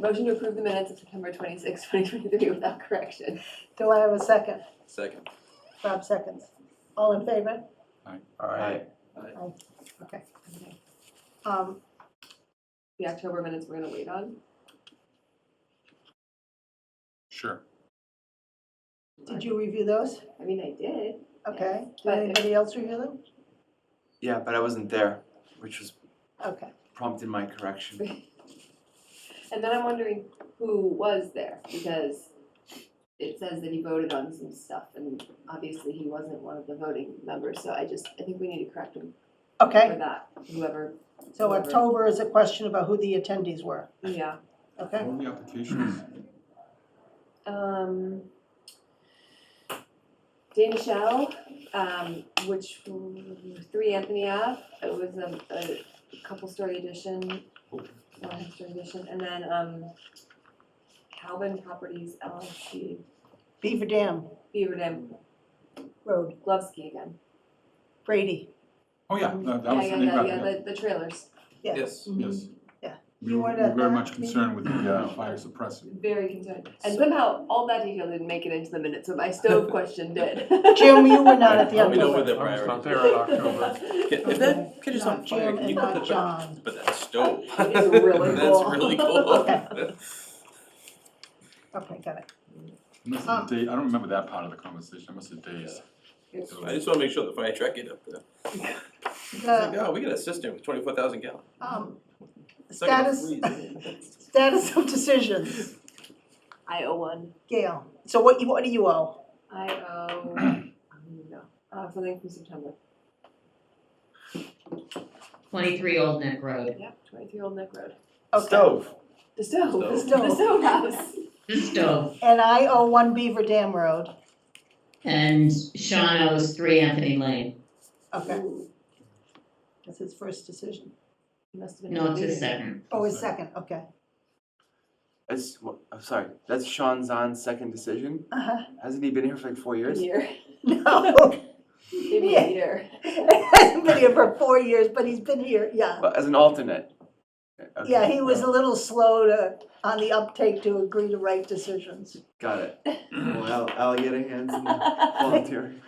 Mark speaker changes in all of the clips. Speaker 1: Motion to approve the minutes of September twenty sixth, twenty twenty-three without correction.
Speaker 2: Do I have a second?
Speaker 3: Second.
Speaker 2: Five seconds. All in favor?
Speaker 3: Aye.
Speaker 2: Um,
Speaker 1: The October minutes we're gonna wait on.
Speaker 4: Sure.
Speaker 2: did you review those?
Speaker 1: I mean, I did.
Speaker 2: Okay. Did
Speaker 1: But-
Speaker 2: anybody else review them?
Speaker 3: Yeah, but I wasn't there, which was
Speaker 2: Okay.
Speaker 3: prompted my correction.
Speaker 1: And then I'm wondering who was there, because it says that he voted on some stuff, and obviously he wasn't one of the voting members, so I just, I think we need to correct him for
Speaker 2: Okay,
Speaker 1: that, whoever,
Speaker 2: so
Speaker 1: Whoever.
Speaker 2: October is a question about who the attendees were,
Speaker 1: yeah.
Speaker 2: okay?
Speaker 4: What were the applications?
Speaker 1: Um, Dana Shell, um, which, three Anthony Ave, it was a, a couple story addition, one story addition, and then, um, Calvin Properties LLC,
Speaker 2: Beaver Dam
Speaker 1: Beaver Dam
Speaker 2: Road,
Speaker 1: Glovsky again.
Speaker 2: Brady.
Speaker 4: Oh, yeah, that
Speaker 1: Yeah,
Speaker 4: that was the
Speaker 1: yeah,
Speaker 4: name.
Speaker 1: yeah,
Speaker 4: of
Speaker 1: yeah,
Speaker 4: it.
Speaker 1: the, the trailers,
Speaker 2: yeah.
Speaker 3: Yes.
Speaker 4: Yes.
Speaker 2: Yeah.
Speaker 4: We
Speaker 2: You
Speaker 4: were we
Speaker 2: wanted
Speaker 4: were very
Speaker 2: that,
Speaker 4: much
Speaker 2: maybe?
Speaker 4: concerned with the uh, fire suppressant.
Speaker 1: very concerning. And somehow, all that detail didn't make it into the minutes, but my stove question did.
Speaker 2: Jim, you were not at the
Speaker 3: Yeah, we know
Speaker 2: October.
Speaker 3: where
Speaker 5: I
Speaker 3: the
Speaker 5: was not
Speaker 3: priority.
Speaker 5: there in October.
Speaker 3: If that catches on fire, can you put
Speaker 2: Not
Speaker 3: that
Speaker 2: Jim
Speaker 3: back?
Speaker 2: and not John,
Speaker 5: But that stove.
Speaker 1: It's really
Speaker 5: That's
Speaker 1: cool.
Speaker 5: really cool.
Speaker 2: okay, got it.
Speaker 4: Must
Speaker 2: Um,
Speaker 4: have day, I don't remember that part of the conversation, I must have days.
Speaker 5: I just wanna make sure the fire truck get up there. It's
Speaker 2: The,
Speaker 5: like, oh, we got a cistern with twenty-four thousand gallon.
Speaker 2: um,
Speaker 5: It's not gonna
Speaker 2: status,
Speaker 5: freeze.
Speaker 2: status of decisions,
Speaker 1: I owe one,
Speaker 2: Gail, so what you, what do you owe?
Speaker 1: I owe, I don't know, uh, something from September,
Speaker 6: 23 Old Neck Road.
Speaker 1: yeah, twenty-three Old Neck Road.
Speaker 2: Okay,
Speaker 3: Stove.
Speaker 1: The stove, the
Speaker 2: Stove.
Speaker 1: stove, the stove house.
Speaker 6: The stove.
Speaker 2: and I owe one Beaver Dam Road,
Speaker 6: And Sean owes 3 Anthony Lane.
Speaker 3: Mm.
Speaker 2: okay,
Speaker 1: Ooh,
Speaker 2: that's his first decision.
Speaker 1: he must have been.
Speaker 6: No,
Speaker 1: in the
Speaker 6: it's his
Speaker 1: meeting.
Speaker 6: second.
Speaker 2: Oh, his second, okay.
Speaker 3: That's, I'm sorry, that's Sean Zahn's second decision.
Speaker 2: Uh-huh.
Speaker 3: Hasn't he been here for like four years?
Speaker 1: Year,
Speaker 2: No,
Speaker 1: maybe
Speaker 2: Yeah.
Speaker 1: a year.
Speaker 2: he's been here for four years, but he's been here, yeah.
Speaker 3: Well, as an alternate. Okay,
Speaker 2: Yeah, he was
Speaker 3: no,
Speaker 2: a little slow to, on the uptake to agree to right decisions.
Speaker 3: Got it. Well, Al- alligator hands and volunteering.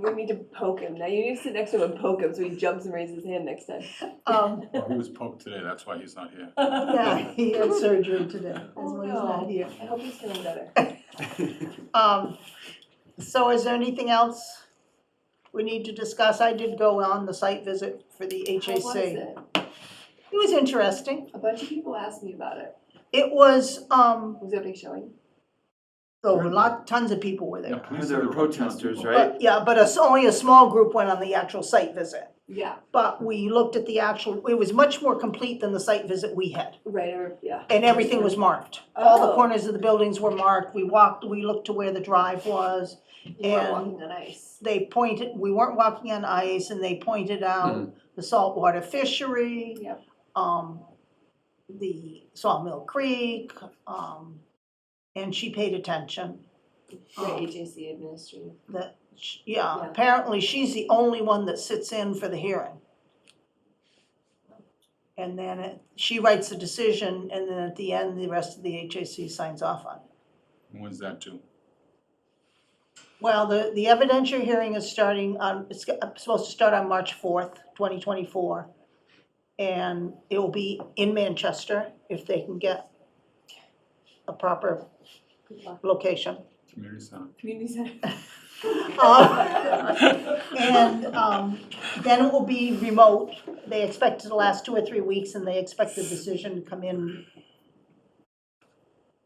Speaker 1: We need to poke him, now you need to sit next to him and poke him so he jumps and raises his hand next time.
Speaker 2: Um,
Speaker 4: Well, he was poked today, that's why he's not here.
Speaker 2: yeah, he had surgery today, that's
Speaker 1: Oh,
Speaker 2: why he's not
Speaker 1: no.
Speaker 2: here.
Speaker 1: I hope he's feeling better.
Speaker 2: Um, so is there anything else we need to discuss? I did go on the site visit for the
Speaker 1: How was
Speaker 2: HAC.
Speaker 1: it?
Speaker 2: It was interesting.
Speaker 1: A bunch of people asked me about it,
Speaker 2: It was, um,
Speaker 1: was there a big showing?
Speaker 2: a lot, tons of people were
Speaker 4: Yeah,
Speaker 2: there.
Speaker 4: police
Speaker 3: There were
Speaker 4: are a bunch of
Speaker 3: protesters,
Speaker 4: people.
Speaker 3: right?
Speaker 2: But, yeah, but it's only a small group went on the actual site visit.
Speaker 1: Yeah,
Speaker 2: But we looked at the actual, it was much more complete than the site visit we had.
Speaker 1: right, or, yeah.
Speaker 2: And everything was marked. All the
Speaker 1: Oh.
Speaker 2: corners of the buildings were marked. We walked, we looked to where the drive was.
Speaker 1: You weren't
Speaker 2: and-
Speaker 1: walking on ice.
Speaker 2: They pointed, we weren't walking on ice and they pointed out the saltwater fishery.
Speaker 1: Yep.
Speaker 2: Um, the Sawmill Creek, um, and she paid attention.
Speaker 1: The
Speaker 2: Um,
Speaker 1: HAC administrator.
Speaker 2: That, sh- yeah,
Speaker 1: Yeah.
Speaker 2: apparently she's the only one that sits in for the hearing. And then it- she writes the decision and then at the end, the rest of the HAC signs off on it.
Speaker 4: When's that due?
Speaker 2: Well, the, the evidentiary hearing is starting on, it's supposed to start on March fourth, twenty twenty-four. And it will be in Manchester if they can get a proper
Speaker 1: Good luck.
Speaker 2: location.
Speaker 4: Community center.
Speaker 1: Community center.
Speaker 2: Um, And um, then it will be remote. They expect it to last two or three weeks and they expect the decision to come in,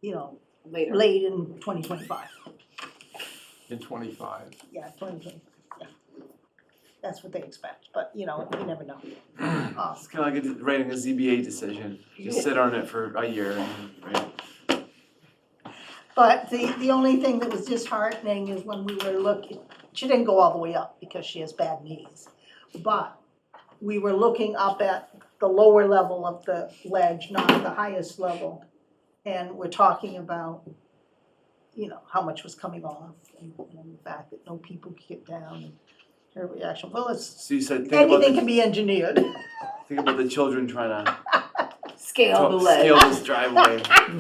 Speaker 2: you know,
Speaker 1: Later.
Speaker 2: late in twenty twenty-five.
Speaker 5: In twenty-five.
Speaker 2: Yeah, twenty twenty, yeah. That's what they expect, but you know, you never know. Uh,
Speaker 3: It's kind of like a- writing a ZBA decision. Just sit on it for a year and, right?
Speaker 2: But the, the only thing that was disheartening is when we were looking, she didn't go all the way up because she has bad knees. But we were looking up at the lower level of the ledge, not the highest level. And we're talking about, you know, how much was coming off and and the fact that no people could get down and her reaction, well, it's,
Speaker 3: So you said, think about
Speaker 2: anything can
Speaker 3: the,
Speaker 2: be engineered.
Speaker 3: think about the children trying to
Speaker 1: scale the ledge.
Speaker 3: Scale this driveway.